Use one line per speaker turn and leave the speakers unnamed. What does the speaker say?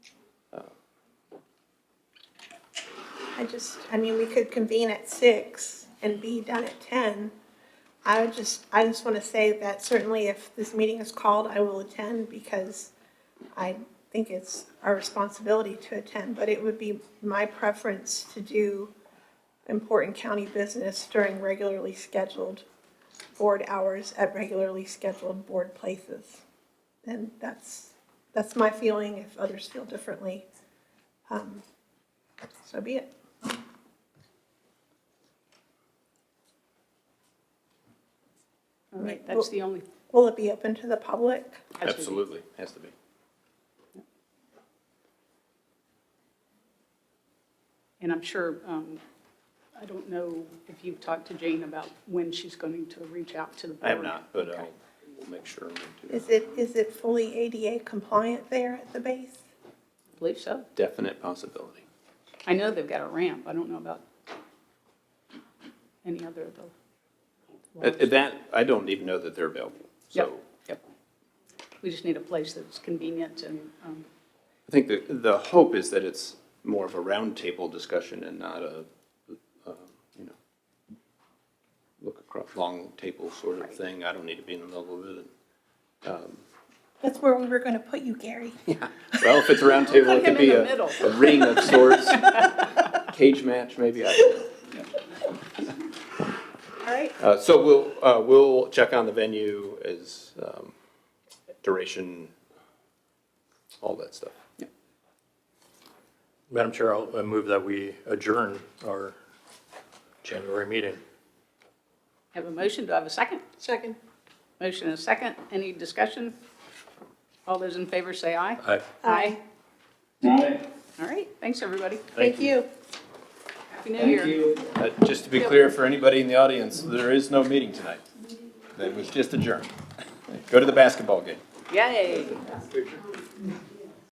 I just, I mean, we could convene at six and be done at ten. I would just, I just want to say that certainly if this meeting is called, I will attend because I think it's our responsibility to attend, but it would be my preference to do important county business during regularly scheduled board hours at regularly scheduled board places. And that's, that's my feeling. If others feel differently, um, so be it.
All right, that's the only,
Will it be open to the public?
Absolutely, has to be.
and I'm sure, um, I don't know if you've talked to Jane about when she's going to reach out to the board.
I have not, but um,
Okay.
I'll, we'll make sure we do.
Is it, is it fully ADA compliant there at the base?
I Believe so.
Definite possibility.
I know they've got a ramp. I don't know about any other of the.
Uh, That, I don't even know that they're available, so.
Yep, Yep. We just need a place that's convenient and, um,
I think the, the hope is that it's more of a roundtable discussion and not a, uh, you know, look across, long table sort of thing. I don't need to be in the middle of it.
That's where we were going to put you, Gary.
Well, if it's a round table, it
Put him
could be
in the
a,
middle.
a ring of sorts, cage match, maybe, I don't know.
All right,
Uh, so we'll, uh, we'll check on the venue as, um, duration, all that stuff.
Madam Chair, I'll I move that we adjourn our January meeting.
have a motion. Do I have a second?
second.
Motion and a second. Any discussion? All those in favor say aye.
Aye.
Aye.
Aye.
All right, thanks, everybody.
Thank you.
Happy New
Thank
Year.
you.
Uh, just to be clear, for anybody in the audience, there is no meeting tonight. That was just adjourned. Go to the basketball game.
Yay.